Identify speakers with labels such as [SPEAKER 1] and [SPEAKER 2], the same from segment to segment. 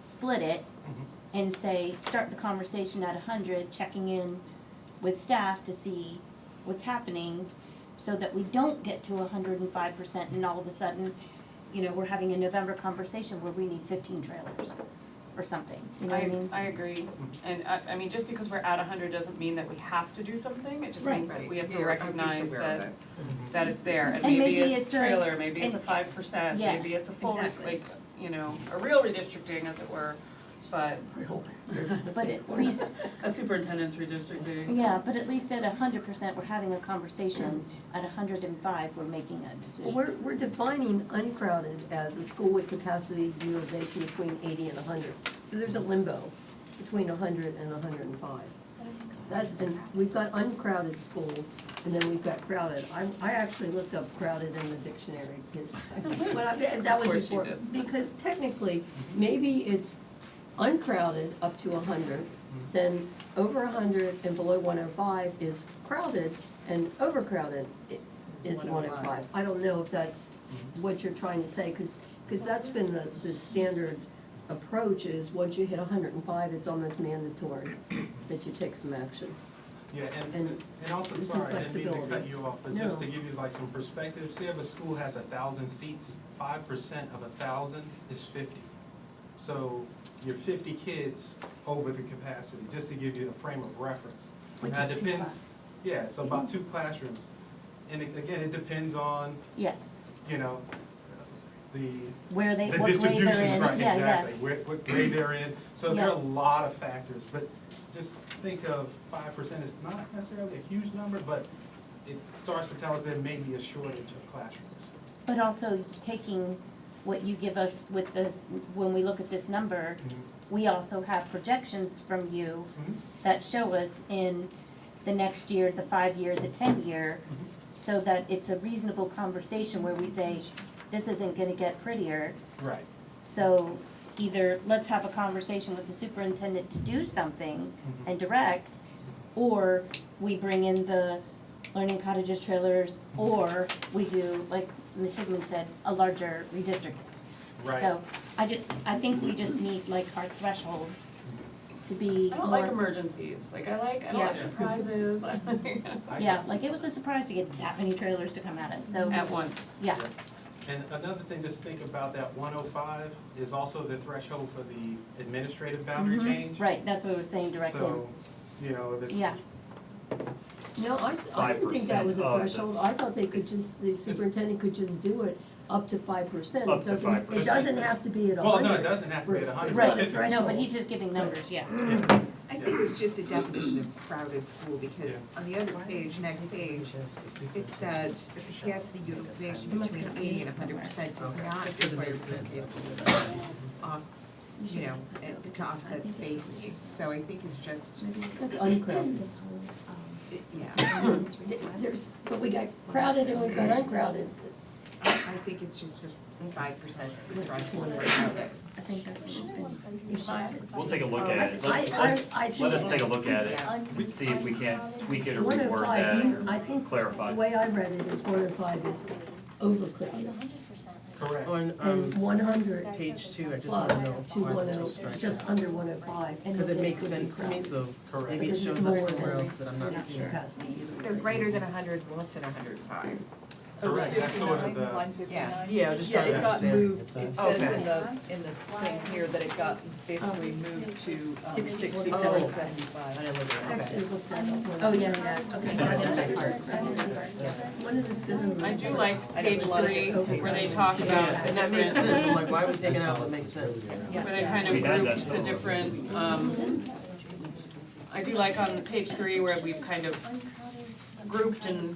[SPEAKER 1] split it
[SPEAKER 2] Mhm.
[SPEAKER 1] and say, start the conversation at hundred, checking in with staff to see what's happening, so that we don't get to hundred and five percent and all of a sudden, you know, we're having a November conversation where we need fifteen trailers or something, you know what I
[SPEAKER 3] I,
[SPEAKER 1] mean?
[SPEAKER 3] I agree, and I, I mean, just because we're at hundred doesn't mean that we have to do something, it just
[SPEAKER 1] Right.
[SPEAKER 3] means that we have
[SPEAKER 4] Yeah,
[SPEAKER 3] to
[SPEAKER 4] I'm just
[SPEAKER 3] recognize
[SPEAKER 4] aware of
[SPEAKER 3] that,
[SPEAKER 2] Mm-hmm.
[SPEAKER 3] that it's there, and
[SPEAKER 1] And
[SPEAKER 3] maybe
[SPEAKER 1] maybe
[SPEAKER 3] it's
[SPEAKER 1] it's a-
[SPEAKER 3] trailer, maybe it's a
[SPEAKER 1] and-
[SPEAKER 3] five percent,
[SPEAKER 1] yeah,
[SPEAKER 3] maybe it's a full, re-
[SPEAKER 1] exactly.
[SPEAKER 3] like, you know, a real redistricting as it were, but
[SPEAKER 1] But at least,
[SPEAKER 3] a superintendent's redistricting.
[SPEAKER 1] yeah, but at least at hundred percent, we're having a conversation, at hundred and five, we're making a
[SPEAKER 5] Well,
[SPEAKER 1] decision.
[SPEAKER 5] We're, we're defining uncrowded as a school with capacity utilization between eighty and hundred. So there's a limbo between hundred and hundred and five. That's, and we've got uncrowded school, and then we've got crowded. I, I actually looked up crowded in the dictionary, because, when I, that was
[SPEAKER 3] Of course you
[SPEAKER 5] before. Because technically, maybe it's uncrowded up to hundred, then over hundred and below one oh five is crowded, and overcrowded i- is one oh
[SPEAKER 4] 105.
[SPEAKER 5] five. Mm-hmm. I don't know if that's what you're trying to say, because, that's been the, the standard approach is, once you hit hundred and five, it's almost mandatory that you take some action.
[SPEAKER 2] Yeah, and,
[SPEAKER 5] And
[SPEAKER 2] and also,
[SPEAKER 5] some
[SPEAKER 2] sorry, I didn't mean to cut
[SPEAKER 5] flexibility.
[SPEAKER 2] you off, but just to
[SPEAKER 5] No.
[SPEAKER 2] give you like some perspective, say if a school has a thousand seats, five percent of a thousand is fifty. So you're fifty kids over the capacity, just to give you a frame of reference.
[SPEAKER 1] Which
[SPEAKER 2] Now, it
[SPEAKER 1] is two
[SPEAKER 2] depends- Yeah, so about
[SPEAKER 5] Mm-hmm.
[SPEAKER 2] two classrooms. And it- again, it depends on,
[SPEAKER 1] Yes,
[SPEAKER 2] you know, the,
[SPEAKER 1] where they,
[SPEAKER 2] the
[SPEAKER 1] what grade they're in,
[SPEAKER 2] distributions,
[SPEAKER 1] yeah,
[SPEAKER 2] right,
[SPEAKER 1] yeah.
[SPEAKER 2] exactly, where, what grade they're in. So there
[SPEAKER 1] Yeah.
[SPEAKER 2] are a lot of factors, but just think of five percent, it's not necessarily a huge number, but it starts to tell us there may be a shortage of classrooms.
[SPEAKER 1] But also taking what you give us with this, when we look at this number, we also have projections from you
[SPEAKER 2] Mhm.
[SPEAKER 1] that show us in the next year, the five year, the ten year, so that it's a reasonable conversation where we say, this isn't gonna get prettier.
[SPEAKER 2] Right.
[SPEAKER 1] So either let's have a conversation with the superintendent to do something
[SPEAKER 2] Mhm.
[SPEAKER 1] and direct, or we bring in the learning cottages trailers, or we do, like Ms. Sigmund said, a larger redistricting.
[SPEAKER 2] Right.
[SPEAKER 1] So I ju- I think we just need like our thresholds
[SPEAKER 2] Mm-hmm.
[SPEAKER 1] to be
[SPEAKER 3] I don't like
[SPEAKER 1] more,
[SPEAKER 3] emergencies, like, I like, I don't
[SPEAKER 1] Yeah.
[SPEAKER 3] like surprises, I like,
[SPEAKER 2] I-
[SPEAKER 1] yeah, like it was a surprise to get that many trailers to come at us, so,
[SPEAKER 3] at once.
[SPEAKER 1] yeah,
[SPEAKER 2] And another thing, just think about that one oh five is also the threshold for the administrative boundary change.
[SPEAKER 1] Mm-hmm. right, that's what I was saying, direct in.
[SPEAKER 2] So, you know, this,
[SPEAKER 1] Yeah.
[SPEAKER 5] No, I, s- I didn't think that was a
[SPEAKER 6] 5% of the-
[SPEAKER 5] threshold, I thought they could just, the superintendent could just do it up to five percent.
[SPEAKER 6] Up to 5%.
[SPEAKER 5] It doesn't have to be at a
[SPEAKER 2] well,
[SPEAKER 5] hundred.
[SPEAKER 2] no, it doesn't have to be at a hundred.
[SPEAKER 5] Right,
[SPEAKER 2] It-
[SPEAKER 5] right.
[SPEAKER 1] No, but he's just giving numbers, yeah.
[SPEAKER 2] yeah,
[SPEAKER 4] I think it's just a definition of crowded school, because on the other page, next page, it said the capacity utilization between eighty and hundred percent does
[SPEAKER 2] Okay.
[SPEAKER 4] not require vehicles off, you know, eh, to offset space needs, so I think it's just,
[SPEAKER 5] That's uncrowded.
[SPEAKER 4] eh, yeah.
[SPEAKER 5] Th- There's, but we got crowded and we've got uncrowded.
[SPEAKER 4] I I think it's just the five percent is the threshold for crowded.
[SPEAKER 1] I think that's what she's been.
[SPEAKER 6] We'll take a look
[SPEAKER 4] um,
[SPEAKER 6] at it,
[SPEAKER 5] I-
[SPEAKER 6] let's,
[SPEAKER 5] I-
[SPEAKER 6] let's,
[SPEAKER 5] I
[SPEAKER 6] let us
[SPEAKER 5] think-
[SPEAKER 6] take a look at it,
[SPEAKER 4] Yeah.
[SPEAKER 6] and see if we can't tweak it or
[SPEAKER 5] One of
[SPEAKER 6] reword that
[SPEAKER 5] five, I
[SPEAKER 6] or
[SPEAKER 5] think,
[SPEAKER 6] clarify.
[SPEAKER 5] the way I read it is one of five is
[SPEAKER 7] He's
[SPEAKER 5] overcrowded.
[SPEAKER 7] hundred percent.
[SPEAKER 2] Correct.
[SPEAKER 8] On,
[SPEAKER 5] And
[SPEAKER 8] um,
[SPEAKER 5] one hundred
[SPEAKER 8] page two, I just wanna
[SPEAKER 5] plus
[SPEAKER 8] know
[SPEAKER 5] two
[SPEAKER 8] why
[SPEAKER 5] one
[SPEAKER 8] this
[SPEAKER 5] oh,
[SPEAKER 8] was struck
[SPEAKER 5] just under one oh five. and
[SPEAKER 8] Because it
[SPEAKER 5] then
[SPEAKER 8] makes
[SPEAKER 5] would be
[SPEAKER 8] sense to me,
[SPEAKER 5] crowded.
[SPEAKER 8] so
[SPEAKER 2] Correct.
[SPEAKER 8] maybe it
[SPEAKER 5] Because it's
[SPEAKER 8] shows
[SPEAKER 5] more
[SPEAKER 8] up
[SPEAKER 5] than
[SPEAKER 8] somewhere else that I'm not
[SPEAKER 5] enough
[SPEAKER 8] seeing.
[SPEAKER 5] capacity.
[SPEAKER 4] So greater than hundred, less than hundred and five.
[SPEAKER 2] Correct, that's sort of the,
[SPEAKER 4] Yeah.
[SPEAKER 8] Yeah, I was just
[SPEAKER 9] Yeah,
[SPEAKER 8] trying to
[SPEAKER 9] it got
[SPEAKER 8] understand.
[SPEAKER 9] moved, it says in the, in the thing here that it got basically moved to um, sixty-seven
[SPEAKER 8] I
[SPEAKER 9] seventy-five.
[SPEAKER 8] didn't look
[SPEAKER 5] I
[SPEAKER 8] at it,
[SPEAKER 5] Actually
[SPEAKER 8] okay.
[SPEAKER 5] looked that up. when I-
[SPEAKER 1] Oh, yeah, yeah, okay.
[SPEAKER 5] One of the systems.
[SPEAKER 3] I do like page
[SPEAKER 5] I don't
[SPEAKER 3] three,
[SPEAKER 5] know.
[SPEAKER 3] where they talk about
[SPEAKER 8] Yeah,
[SPEAKER 3] the
[SPEAKER 8] and that makes
[SPEAKER 3] different
[SPEAKER 8] sense, I'm like, why would we taking out what makes sense?
[SPEAKER 5] Yeah.
[SPEAKER 3] But it kind
[SPEAKER 6] We had
[SPEAKER 3] of
[SPEAKER 6] that
[SPEAKER 3] grouped the
[SPEAKER 6] spell.
[SPEAKER 3] different, um, I do like on page three where we've kind of grouped and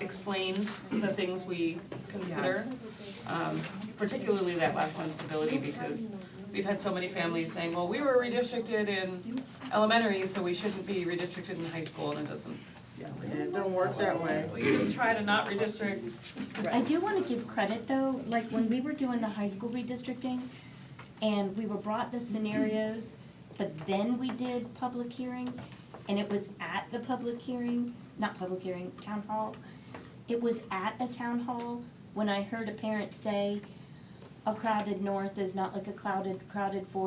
[SPEAKER 3] explained the things we consider.
[SPEAKER 4] Yes.
[SPEAKER 3] Um, particularly that last one, stability, because we've had so many families saying, well, we were redistricted in elementary, so we shouldn't be redistricted in high school, and it doesn't.
[SPEAKER 8] It don't work that way.
[SPEAKER 3] Well, you just try to not redistrict.
[SPEAKER 1] I do wanna give credit though, like when we were doing the high school redistricting and we were brought the scenarios, but then we did public hearing and it was at the public hearing, not public hearing, town hall. It was at a town hall when I heard a parent say, a crowded north is not like a crowded, crowded fourth